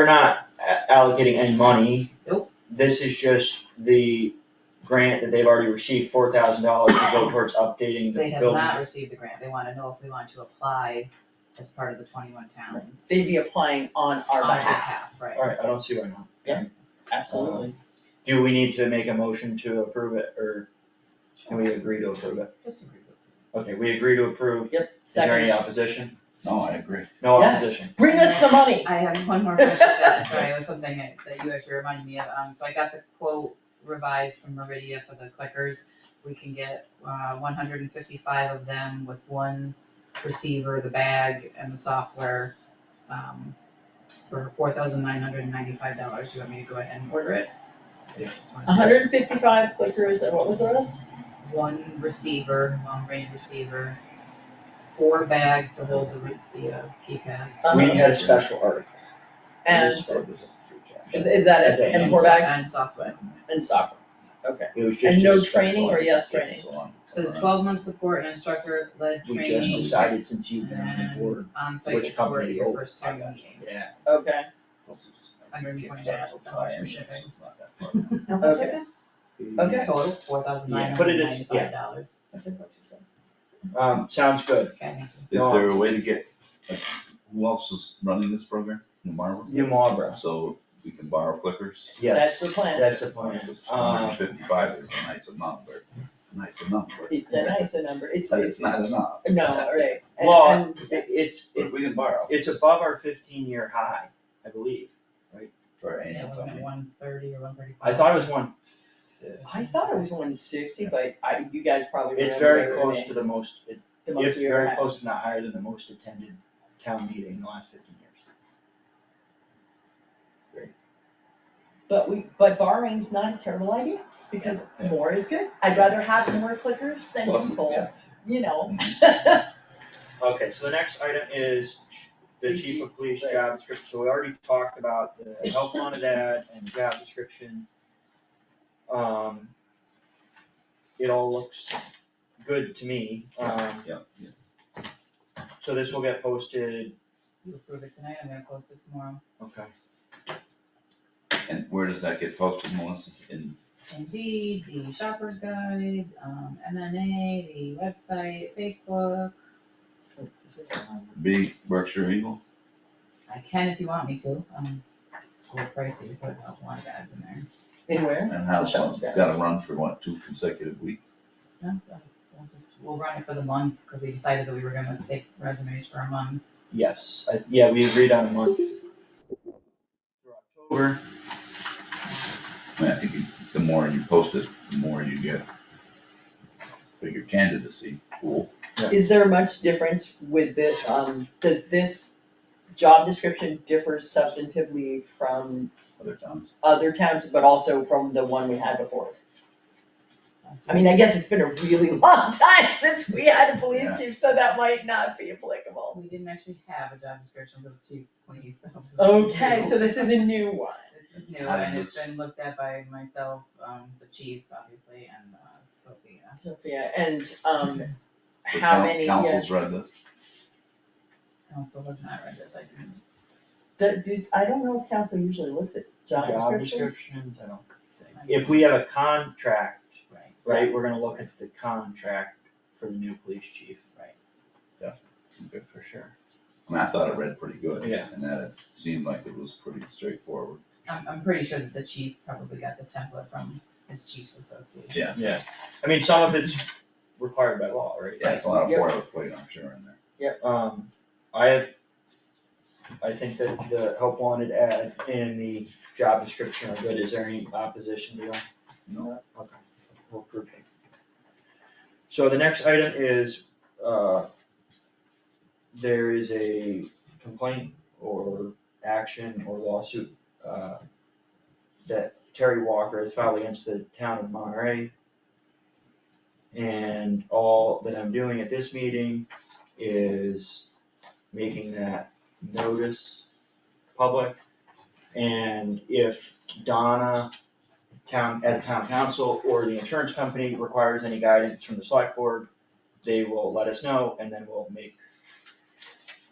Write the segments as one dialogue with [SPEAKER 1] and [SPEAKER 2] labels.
[SPEAKER 1] We're not a- allocating any money.
[SPEAKER 2] Nope.
[SPEAKER 1] This is just the grant that they've already received, four thousand dollars to go towards updating the
[SPEAKER 2] They have
[SPEAKER 1] building.
[SPEAKER 2] not received the grant, they wanna know if we want to apply as part of the twenty-one towns.
[SPEAKER 3] They'd be applying on our
[SPEAKER 2] On
[SPEAKER 3] behalf,
[SPEAKER 2] right.
[SPEAKER 1] Alright, I don't see why not.
[SPEAKER 3] absolutely.
[SPEAKER 1] Do we need to make a motion to approve it, or can we agree to approve it?
[SPEAKER 2] Just agree with it.
[SPEAKER 1] Okay, we agree to approve.
[SPEAKER 3] Yep,
[SPEAKER 1] Is there any
[SPEAKER 3] second,
[SPEAKER 1] opposition?
[SPEAKER 4] No, I agree.
[SPEAKER 1] No
[SPEAKER 3] Yeah.
[SPEAKER 1] opposition.
[SPEAKER 3] bring us the money.
[SPEAKER 2] I have one more question, that- sorry, it was something that that you actually reminded me of, um, so I got the quote revised from Meridia for the clickers. We can get, uh, one hundred and fifty-five of them with one receiver, the bag and the software, um, for four thousand nine hundred and ninety-five dollars, do you want me to go ahead and order it? Just wanted to-
[SPEAKER 3] hundred and fifty-five clickers, and what was the rest?
[SPEAKER 2] One receiver, long-range receiver, four bags to hold the, re- the uh, keypads.
[SPEAKER 3] Uh-huh.
[SPEAKER 1] We
[SPEAKER 4] Um,
[SPEAKER 1] had a special article.
[SPEAKER 3] And
[SPEAKER 1] This part was free cash.
[SPEAKER 3] is is that it, and four bags
[SPEAKER 2] And software.
[SPEAKER 3] and software, okay.
[SPEAKER 1] It was just.
[SPEAKER 3] And no
[SPEAKER 1] a special
[SPEAKER 3] training or
[SPEAKER 1] article.
[SPEAKER 3] yes training?
[SPEAKER 2] Says twelve month support and instructor led
[SPEAKER 1] We just
[SPEAKER 2] training
[SPEAKER 1] decided since you've been on the
[SPEAKER 2] And-
[SPEAKER 1] board,
[SPEAKER 2] on site
[SPEAKER 1] which
[SPEAKER 2] support at
[SPEAKER 1] company
[SPEAKER 2] your
[SPEAKER 1] you-
[SPEAKER 2] first
[SPEAKER 1] I
[SPEAKER 2] time
[SPEAKER 1] got
[SPEAKER 2] meeting.
[SPEAKER 1] yeah.
[SPEAKER 3] Okay,
[SPEAKER 2] How
[SPEAKER 3] much was okay.
[SPEAKER 2] Total, four thousand nine
[SPEAKER 1] Yeah, put
[SPEAKER 2] hundred
[SPEAKER 1] it as- yeah.
[SPEAKER 2] ninety-five dollars.
[SPEAKER 1] Um, sounds good.
[SPEAKER 2] Okay, thank you.
[SPEAKER 4] Is there a way to get, like, who else is running this program? New Marlboro?
[SPEAKER 1] New Marlboro,
[SPEAKER 4] So we can borrow clickers?
[SPEAKER 3] That's
[SPEAKER 1] yes,
[SPEAKER 3] the plan,
[SPEAKER 1] that's the plan. Um,
[SPEAKER 4] 155 is a nice amount, but nice enough, but
[SPEAKER 3] It- that is the number, it's,
[SPEAKER 4] but
[SPEAKER 3] it's,
[SPEAKER 4] it's not enough.
[SPEAKER 3] no, all right, and,
[SPEAKER 1] Well,
[SPEAKER 3] and,
[SPEAKER 1] it- it's,
[SPEAKER 4] But if we can borrow
[SPEAKER 1] it's above our fifteen year high, I believe.
[SPEAKER 4] for our
[SPEAKER 2] Yeah,
[SPEAKER 4] annual town
[SPEAKER 2] wasn't it
[SPEAKER 4] meeting.
[SPEAKER 2] one thirty or one thirty-five?
[SPEAKER 1] I thought it was one.
[SPEAKER 3] I thought it was one sixty, but I, you guys probably
[SPEAKER 1] uh, It's
[SPEAKER 3] remember
[SPEAKER 1] very
[SPEAKER 3] better than
[SPEAKER 1] close to the most, it-
[SPEAKER 3] the most
[SPEAKER 1] it's
[SPEAKER 3] we ever
[SPEAKER 1] very
[SPEAKER 3] had.
[SPEAKER 1] close to not higher than the most attended town meeting in the last fifteen years.
[SPEAKER 3] But we, but borrowing's not a terrible idea, because
[SPEAKER 4] Yeah.
[SPEAKER 3] more is good, I'd rather have more clickers than
[SPEAKER 4] Well,
[SPEAKER 3] people,
[SPEAKER 4] yeah.
[SPEAKER 3] you know.
[SPEAKER 1] Okay, so the next item is ch- the chief of police job description, so we already talked about the health wanted ad and the job description. Um. It all looks good to me, um,
[SPEAKER 4] Yeah, yeah.
[SPEAKER 1] so this will get posted,
[SPEAKER 2] You approve it tonight, I'm gonna post it tomorrow.
[SPEAKER 1] okay,
[SPEAKER 4] And where does that get posted, Melissa? In,
[SPEAKER 2] Indeed, the shopper's guide, um, MMA, the website, Facebook. This is, um,
[SPEAKER 4] big Berkshire Eagle?
[SPEAKER 2] I can if you want me to, um, it's a little pricey to put a lot of ads in there.
[SPEAKER 3] In where?
[SPEAKER 4] And how long, it's gotta run for what, two consecutive weeks?
[SPEAKER 2] No, that's- we'll just, we'll run it for the month, cause we decided that we were gonna take resumes for a month.
[SPEAKER 1] yes, I, yeah, we agreed on a month. For October,
[SPEAKER 4] I mean, I think you- the more you post it, the more you get bigger candidacy pool.
[SPEAKER 3] Is there much difference with this, um, does this job description differ substantively from
[SPEAKER 4] other towns.
[SPEAKER 3] other towns, but also from the one we had before?
[SPEAKER 2] Uh, so
[SPEAKER 3] I mean, I guess it's been a really long time since we had a
[SPEAKER 4] Yeah.
[SPEAKER 3] police chief, so that might not be applicable.
[SPEAKER 2] We didn't actually have a job description for the chief police officer.
[SPEAKER 3] Okay, so this is a new one.
[SPEAKER 2] This is new and it's been looked at by myself, um, the chief, obviously, and uh, Sophia.
[SPEAKER 3] Sophia, and, um,
[SPEAKER 4] The
[SPEAKER 3] how
[SPEAKER 4] coun-
[SPEAKER 3] many, yeah,
[SPEAKER 4] Councils read this,
[SPEAKER 2] Council has not read this, I can,
[SPEAKER 3] the, do, I don't know if council usually looks at job
[SPEAKER 1] job
[SPEAKER 3] descriptions.
[SPEAKER 1] descriptions, I don't think, if we have a contract,
[SPEAKER 2] right,
[SPEAKER 1] right, we're gonna look at the contract for the new police chief.
[SPEAKER 2] Right.
[SPEAKER 1] Good for sure.
[SPEAKER 4] I mean, I thought it read pretty good.
[SPEAKER 1] Yeah.
[SPEAKER 4] And that it seemed like it was pretty straightforward.
[SPEAKER 2] I'm, I'm pretty sure that the chief probably got the template from his chief's association.
[SPEAKER 4] Yeah.
[SPEAKER 1] Yeah, I mean, some of it's required by law, right?
[SPEAKER 4] Yeah, it's a lot of
[SPEAKER 3] Yep.
[SPEAKER 4] boilerplate, I'm sure, in there.
[SPEAKER 1] Um, I have, I think that the help wanted ad and the job description are good, is there any opposition to that?
[SPEAKER 4] No.
[SPEAKER 1] Okay. We'll approve it. So the next item is, uh, there is a complaint or action or lawsuit, uh, that Terry Walker has filed against the town of Monterey. And all that I'm doing at this meeting is making that notice public. And if Donna, town, as town council or the insurance company requires any guidance from the select board, they will let us know and then we'll make,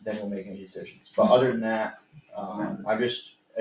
[SPEAKER 1] then we'll make any decisions. But other than that, um, I just